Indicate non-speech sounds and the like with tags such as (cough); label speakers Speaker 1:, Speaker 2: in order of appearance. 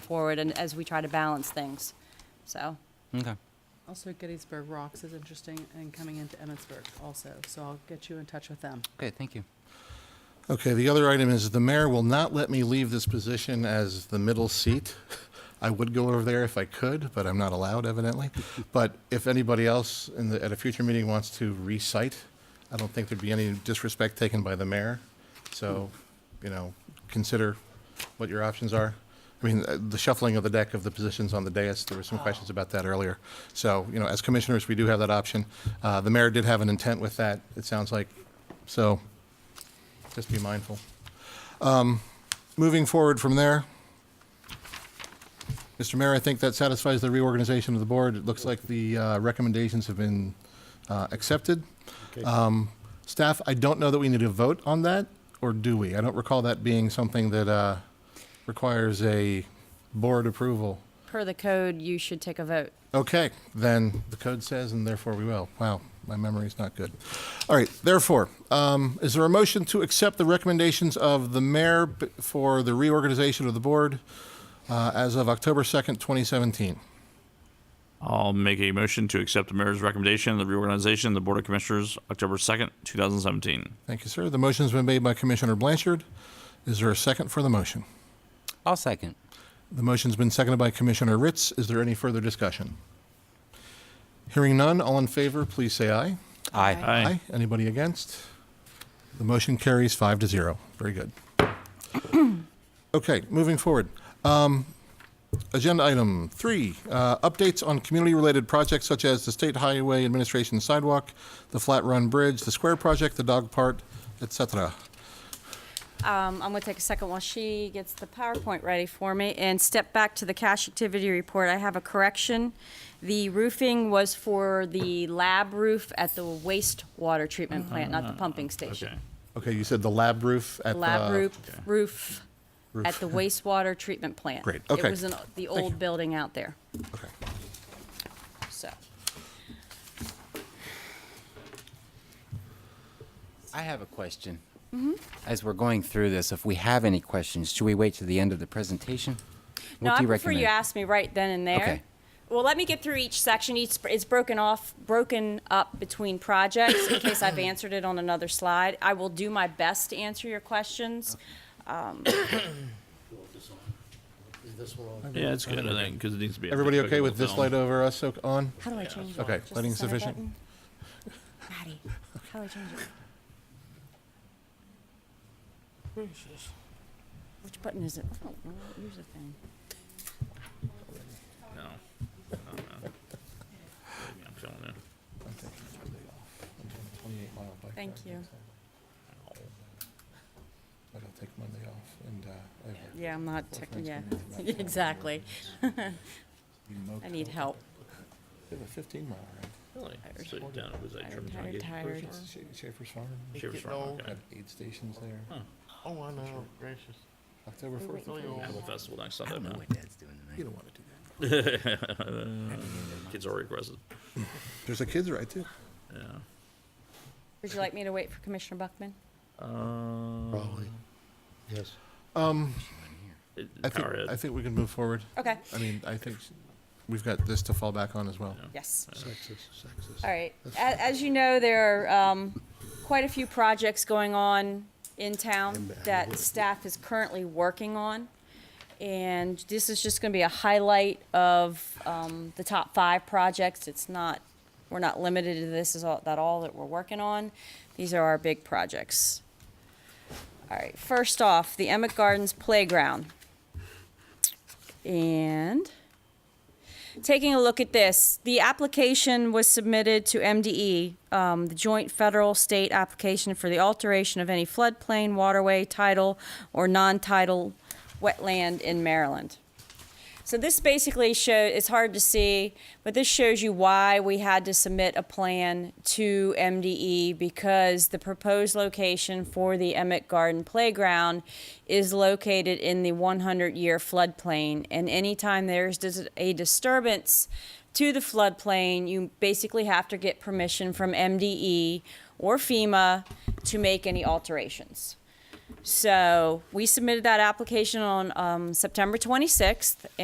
Speaker 1: forward and as we try to balance things. So,
Speaker 2: Okay.
Speaker 3: Also, Gettysburg Rocks is interesting and coming into Emmitsburg also, so I'll get you in touch with them.
Speaker 2: Okay, thank you.
Speaker 4: Okay, the other item is the mayor will not let me leave this position as the middle seat. I would go over there if I could, but I'm not allowed evidently. But if anybody else in the, at a future meeting wants to recite, I don't think there'd be any disrespect taken by the mayor. So, you know, consider what your options are. I mean, uh, the shuffling of the deck of the positions on the dais, there were some questions about that earlier. So, you know, as commissioners, we do have that option. Uh, The mayor did have an intent with that, it sounds like. So, just be mindful. Um, Moving forward from there, Mr. Mayor, I think that satisfies the reorganization of the board. It looks like the uh, recommendations have been uh, accepted. Um, Staff, I don't know that we need to vote on that, or do we? I don't recall that being something that uh, requires a board approval.
Speaker 1: per the code, you should take a vote.
Speaker 4: Okay, then the code says, and therefore we will. Wow, my memory's not good. All right, therefore, um, is there a motion to accept the recommendations of the mayor b- for the reorganization of the board uh, as of October 2nd, 2017?
Speaker 5: I'll make a motion to accept the mayor's recommendation of the reorganization of the Board of Commissioners, October 2nd, 2017.
Speaker 4: Thank you, sir. The motion's been made by Commissioner Blanchard. Is there a second for the motion?
Speaker 2: I'll second.
Speaker 4: The motion's been seconded by Commissioner Ritz. Is there any further discussion? Hearing none, all in favor, please say aye.
Speaker 2: Aye.
Speaker 5: Aye.
Speaker 4: Anybody against? The motion carries five to zero. Very good. (clears throat) Okay, moving forward. Um, Agenda item three, uh, updates on community-related projects such as the State Highway Administration Sidewalk, the Flat Run Bridge, the Square Project, the Dog Part, et cetera.
Speaker 1: Um, I'm gonna take a second while she gets the PowerPoint ready for me and step back to the cash activity report. I have a correction. The roofing was for the lab roof at the wastewater treatment plant, not the pumping
Speaker 5: Okay.
Speaker 1: station.
Speaker 4: Uh-huh. Okay, you said the lab roof at uh, the...
Speaker 1: Lab roof, roof
Speaker 4: Roof.
Speaker 1: at the wastewater treatment plant.
Speaker 4: Great, okay.
Speaker 1: It was in the
Speaker 4: you.
Speaker 1: old building out there,
Speaker 4: Okay.
Speaker 1: so.
Speaker 2: I have a question.
Speaker 1: Mm-hmm.
Speaker 2: As we're going through this, if we have any questions, should we wait to the end of the presentation? What
Speaker 1: No,
Speaker 2: do
Speaker 1: I
Speaker 2: you
Speaker 1: prefer you
Speaker 2: recommend?
Speaker 1: ask me right then and there.
Speaker 2: Okay.
Speaker 1: Well, let me get through each section. Each, it's broken off, broken up between projects in case I've answered it on another slide. I will do my best to answer your questions.
Speaker 5: Yeah, it's good, I think, because it needs to be.
Speaker 4: Everybody okay with this light
Speaker 5: later?
Speaker 4: over us so- on?
Speaker 1: How do I change it?
Speaker 4: Okay,
Speaker 1: Just the
Speaker 4: lighting
Speaker 1: center
Speaker 4: sufficient?
Speaker 1: button? Ratty, how do I change it? Which button is it? I don't know. Here's the thing.
Speaker 5: No. No, no. I'm showing you.
Speaker 1: Thank you.
Speaker 4: I don't take Monday off and, uh,
Speaker 1: Yeah, I'm not, tech-
Speaker 4: friends
Speaker 1: yeah, (laughs)
Speaker 4: can use it back.
Speaker 1: exactly. (laughs) I need help.
Speaker 4: I have a 15 mile ride.
Speaker 5: Really? So you're down, was that
Speaker 1: Tired,
Speaker 5: Sherman's
Speaker 1: tired,
Speaker 5: Monkey?
Speaker 1: tired.
Speaker 4: Schaefer's Farm,
Speaker 5: Sherman's
Speaker 6: Getting
Speaker 5: Farm,
Speaker 6: old.
Speaker 5: okay.
Speaker 4: have aid stations there.
Speaker 6: Oh, I know, gracious.
Speaker 4: October 4th.
Speaker 6: Really old.
Speaker 5: Apple Festival next
Speaker 2: I
Speaker 5: Sunday,
Speaker 2: don't know
Speaker 5: man.
Speaker 2: what Dad's doing
Speaker 4: You
Speaker 2: tonight.
Speaker 4: don't want to do that.
Speaker 5: (laughs) Kids are already aggressive.
Speaker 4: There's a kids ride too.
Speaker 5: Yeah.
Speaker 1: Would you like me to wait for Commissioner Buckman?
Speaker 5: Probably.
Speaker 6: Yes.
Speaker 4: Um, I think, I
Speaker 5: Powerhead.
Speaker 4: think we can move forward.
Speaker 1: Okay,
Speaker 4: I mean, I think we've got this to fall back on as well.
Speaker 1: yes.
Speaker 6: Sexist, sexist.
Speaker 1: All right. As, as you know, there are um, quite a few projects going on in town that staff is currently working on. And this is just going to be a highlight of um, the top five projects. It's not, we're not limited to this is all, that all that we're working on. These are our big projects. All right, first off, the Emmett Gardens Playground. And taking a look at this, the application was submitted to MDE, um, the joint federal-state application for the alteration of any floodplain, waterway, tidal, or non-tidal wetland in Maryland. So this basically show, it's hard to see, but this shows you why we had to submit a plan to MDE because the proposed location for the Emmett Garden Playground is located in the 100-year floodplain. And anytime there's dis- a disturbance to the floodplain, you basically have to get permission from MDE or FEMA to make any alterations. So we submitted that application on um, September 26th,